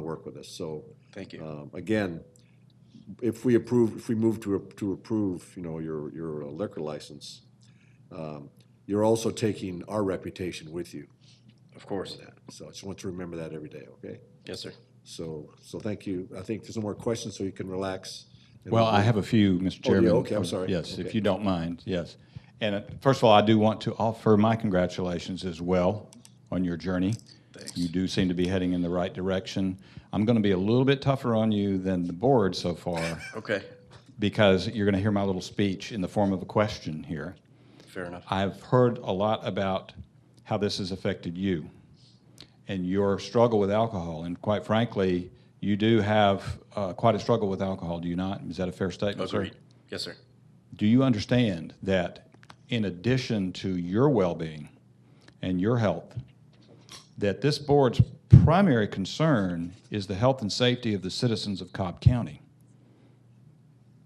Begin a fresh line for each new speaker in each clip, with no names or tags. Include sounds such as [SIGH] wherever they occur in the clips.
work with us. So,
Thank you.
um, again, if we approve, if we move to, to approve, you know, your, your liquor license, um, you're also taking our reputation with you.
Of course.
So I just want to remember that every day, okay?
Yes, sir.
So, so thank you. I think there's no more questions, so you can relax. and
Well, I have a few, Mr.
Oh, yeah,
Chairman.
okay, I'm sorry.
Yes, if
Okay.
you don't mind, yes. And uh, first of all, I do want to offer my congratulations as well on your journey. Thanks. You do seem to be heading in the right direction. I'm going to be a little bit tougher on you than the board
[LAUGHS]
so far
Okay,
because you're going to hear my little speech in the form of a question here.
fair enough.
I've heard a lot about how this has affected you and your struggle with alcohol. And quite frankly, you do have uh, quite a struggle with alcohol, do you not? Is that a fair statement, sir?
Agreed. Yes, sir.
Do you understand that in addition to your well-being and your health, that this board's primary concern is the health and safety of the citizens of Cobb County?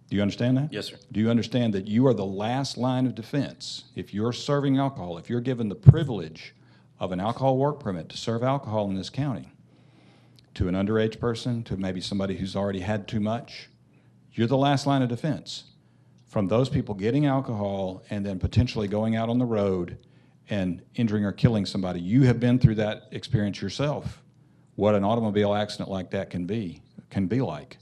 Do you understand that?
Yes, sir.
Do you understand that you are the last line of defense? If you're serving alcohol, if you're given the privilege of an alcohol work permit to serve alcohol in this county to an underage person, to maybe somebody who's already had too much, you're the last line of defense from those people getting alcohol and then potentially going out on the road and injuring or killing somebody. You have been through that experience yourself. What an automobile accident like that can be can be like.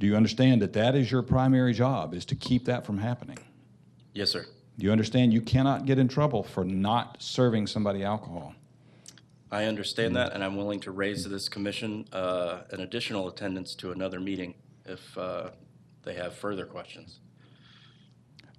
Do you understand that that is your primary job is to keep that from happening?
Yes, sir.
Do you understand you cannot get in trouble for not serving somebody alcohol?
I understand that, and I'm willing to raise to this commission uh, an additional attendance to another meeting if uh, they have further questions.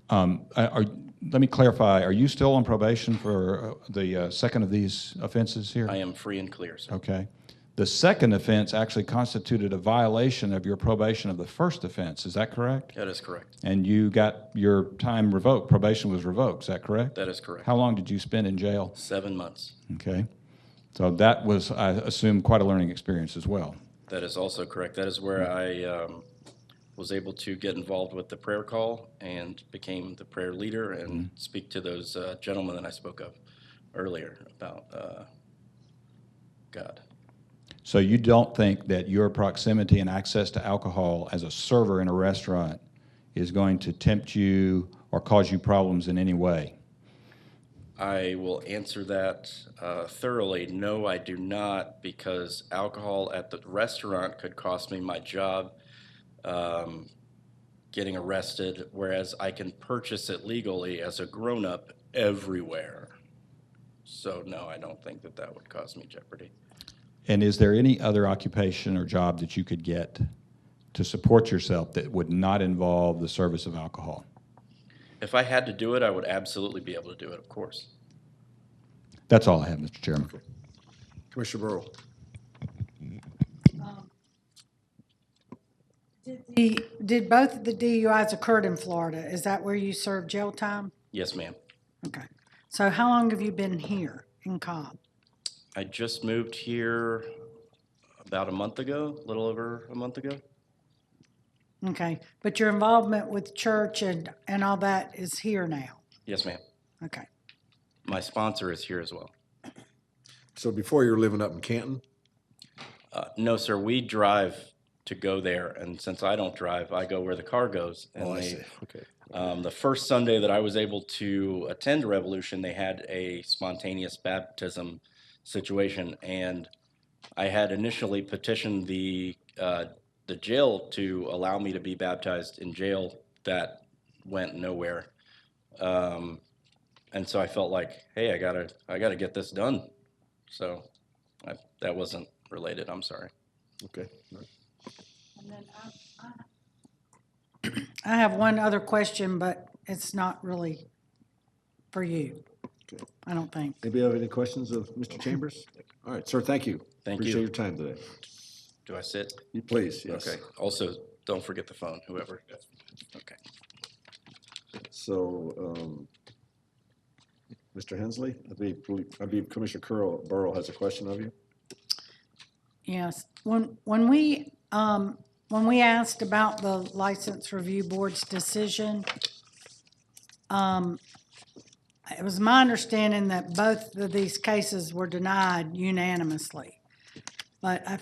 Uh, are, let me clarify. Are you still on probation for uh, the uh, second of these offenses here?
I am free and clear, sir.
Okay. The second offense actually constituted a violation of your probation of the first offense. Is that correct?
That is correct.
And you got your time revoked. Probation was revoked. Is that correct?
That is correct.
How long did you spend in jail?
Seven months.
Okay. So that was, I assume, quite a learning experience as well.
That is also correct. That is where I um, was able to get involved with the prayer call and became the prayer leader and speak to those uh, gentlemen that I spoke of earlier about uh, God.
So you don't think that your proximity and access to alcohol as a server in a restaurant is going to tempt you or cause you problems in any way?
I will answer that uh, thoroughly. No, I do not, because alcohol at the restaurant could cost me my job, um, getting arrested, whereas I can purchase it legally as a grown up everywhere. So, no, I don't think that that would cause me jeopardy.
And is there any other occupation or job that you could get to support yourself that would not involve the service of alcohol?
If I had to do it, I would absolutely be able to do it, of course.
That's all I have, Mr. Chairman.
Commissioner Burrow.
The- Did both of the DUIs occurred in Florida? Is that where you served jail time?
Yes, ma'am.
Okay. So how long have you been here in Cobb?
I just moved here about a month ago, a little over a month ago.
Okay. But your involvement with church and, and all that is here now?
Yes, ma'am.
Okay.
My sponsor is here as well.
So before you were living up in Canton,
Uh, no, sir. We drive to go there, and since I don't drive, I go where the car goes. And
Oh, I
they-
see. Okay.
Um, the first Sunday that I was able to attend Revolution, they had a spontaneous baptism situation, and I had initially petitioned the uh, the jail to allow me to be baptized in jail. That went nowhere, um, and so I felt like, hey, I gotta I gotta get this done. So I, that wasn't related. I'm sorry.
okay. All right.
I have one other question, but it's not really for you.
Okay.
I don't think.
Anybody have any questions of Mr. Chambers? All right, sir, thank you.
Thank
Appreciate
you.
your time today.
Do I sit?
You Please, yes.
Okay. Also, don't forget the phone. Whoever. Okay.
So, um, Mr. Hensley, I believe, I believe Commissioner Curl, Burrow has a question of you.
Yes, when, when we, um, when we asked about the License Review Board's decision, um, it was my understanding that both of these cases were denied unanimously. But I